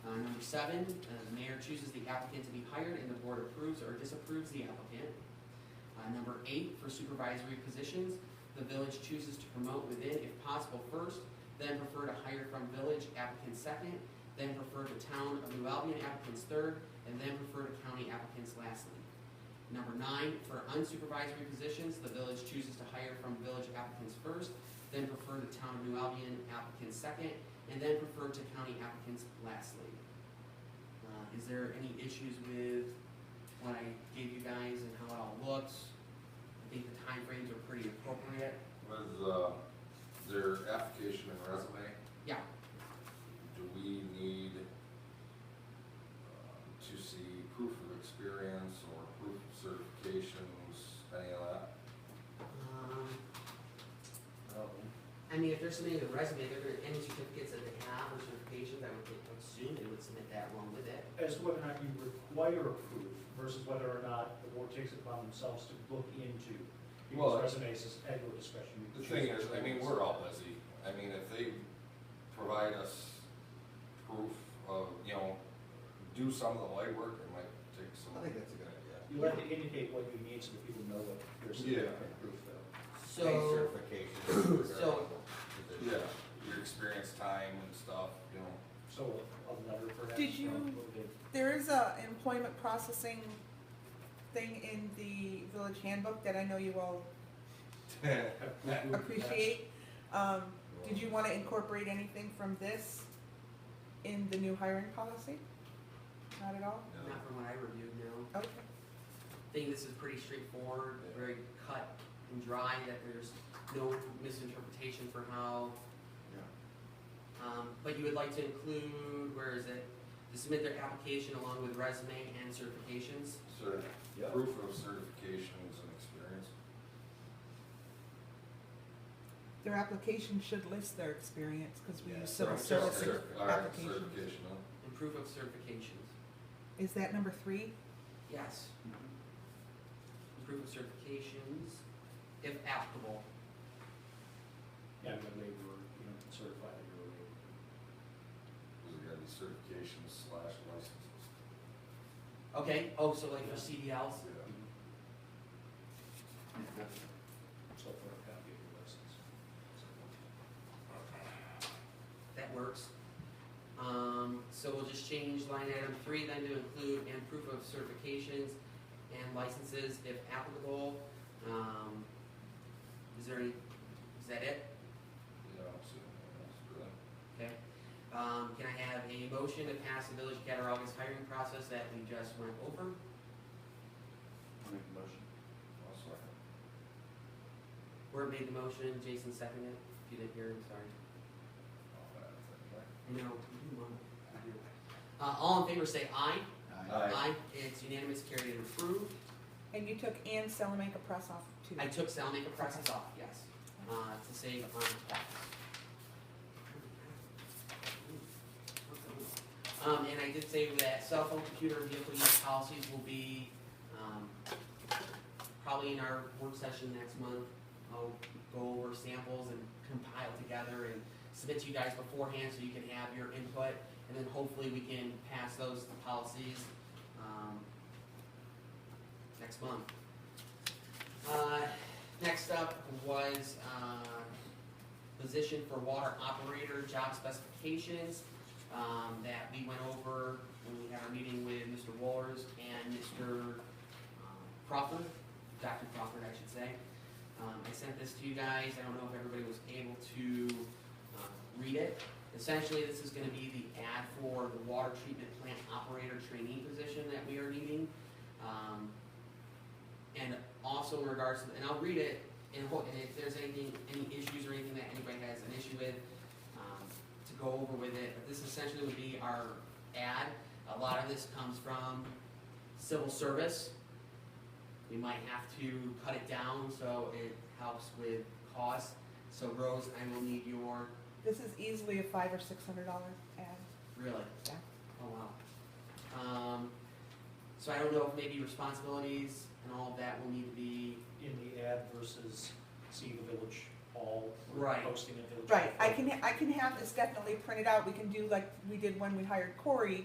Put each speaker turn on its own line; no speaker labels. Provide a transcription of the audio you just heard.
through seven, uh, the mayor chooses the applicant to be hired and the board approves or disapproves the applicant. Uh, Number eight, for supervisory positions, the village chooses to promote within if possible first, then prefer to hire from village applicants second, then prefer to town of New Albion applicants third, and then prefer to county applicants lastly. Number nine, for unsupervisory positions, the village chooses to hire from village applicants first, then prefer to town of New Albion applicants second, and then prefer to county applicants lastly. Uh, Is there any issues with what I gave you guys and how it all looks? I think the timeframes are pretty appropriate.
With, uh, their application and resume,
Yeah,
do we need uh, to see proof of experience or proof of certifications, any of that?
um,
um,
I mean, if they're submitting a resume, they're gonna, any certificates that they have or certifications, I would think- would assume they would submit that along with it.
as to whether or not you require proof versus whether or not the board takes it upon themselves to look into
Well,
people's resumes at your discretion. You
The
can
thing
choose
is, I mean, we're all busy, I mean, if they provide us proof of, you know, do some of the legwork, it might take some.
I think that's a good idea.
You have to indicate what you need so that people know what you're submitting
Yeah.
and proof though.
So.
Pay certification regarding
so-
the position.
Yeah, your experience, time and stuff, you know.
So a letter perhaps.
Did you-
or motivate-
There is a employment processing thing in the village handbook that I know you all appreciate. Um, did you wanna incorporate anything from this in the new hiring policy? Not at all?
No.
Not from what I reviewed, no.
Okay,
I think this is pretty straightforward, very cut and dry, that there's no misinterpretation for how. Um, but you would like to include, where is it? To submit their application along with resume and certifications?
Sure.
Yeah.
Proof of certifications and experience.
their application should list their experience, cause we
Yeah.
use civil
Right,
service
certi- all right,
application.
Certification, huh?
And proof of certifications,
Is that number three?
yes. Proof of certifications, if applicable.
Yeah, the labor, you know, certify that you're a laborer.
Those are gotta be certifications slash licenses.
Okay, oh, so like for CDLs?
Yeah.
So for a copy of your license. So-
That works. Um, so we'll just change line item three then to include and proof of certifications and licenses if applicable. Um, is there any, is that it?
Yeah, I'm assuming that's good.
Okay. Um, can I have a motion to pass the Village of Cattaraugus hiring process that we just went over?
I'll second.
Where made the motion, Jason seconded it. If you didn't hear, I'm sorry.
All that, I think, right?
No. you won. Uh, all in favor say aye.
Aye.
It's unanimous, carried and approved.
And you took Ann Salamanca Press off too.
I took Sal Make a process off, yes, uh, to save on tax. Um, and I did say that cell phone, computer, and vehicle use policies will be, um, probably in our work session next month. I'll go over samples and compile together and submit to you guys beforehand so you can have your input. And then hopefully we can pass those policies, um, next month. Uh, Next up was uh, position for water operator, job specifications um, that we went over when we had our meeting with Mr. Wallers and Mr. um, Crawford, Dr. Crawford, I should say. Um, I sent this to you guys, I don't know if everybody was able to uh, read it. Essentially, this is gonna be the ad for the water treatment plant operator trainee position that we are needing. Um, and also in regards to, and I'll read it, and ho- and if there's anything, any issues or anything that anybody has an issue with, um, to go over with it, but this essentially would be our ad. A lot of this comes from civil service. We might have to cut it down, so it helps with cost. So Rose, I will need your,
This is easily a five or six hundred dollar ad.
really,
Yeah.
Oh, wow. Um, so I don't know if maybe responsibilities and all of that will need to be,
In the ad versus see the village hall or
Right.
posting a village.
Right,
hall
I
photo.
can, I can have this definitely printed out, we can do like we did when we hired Corey,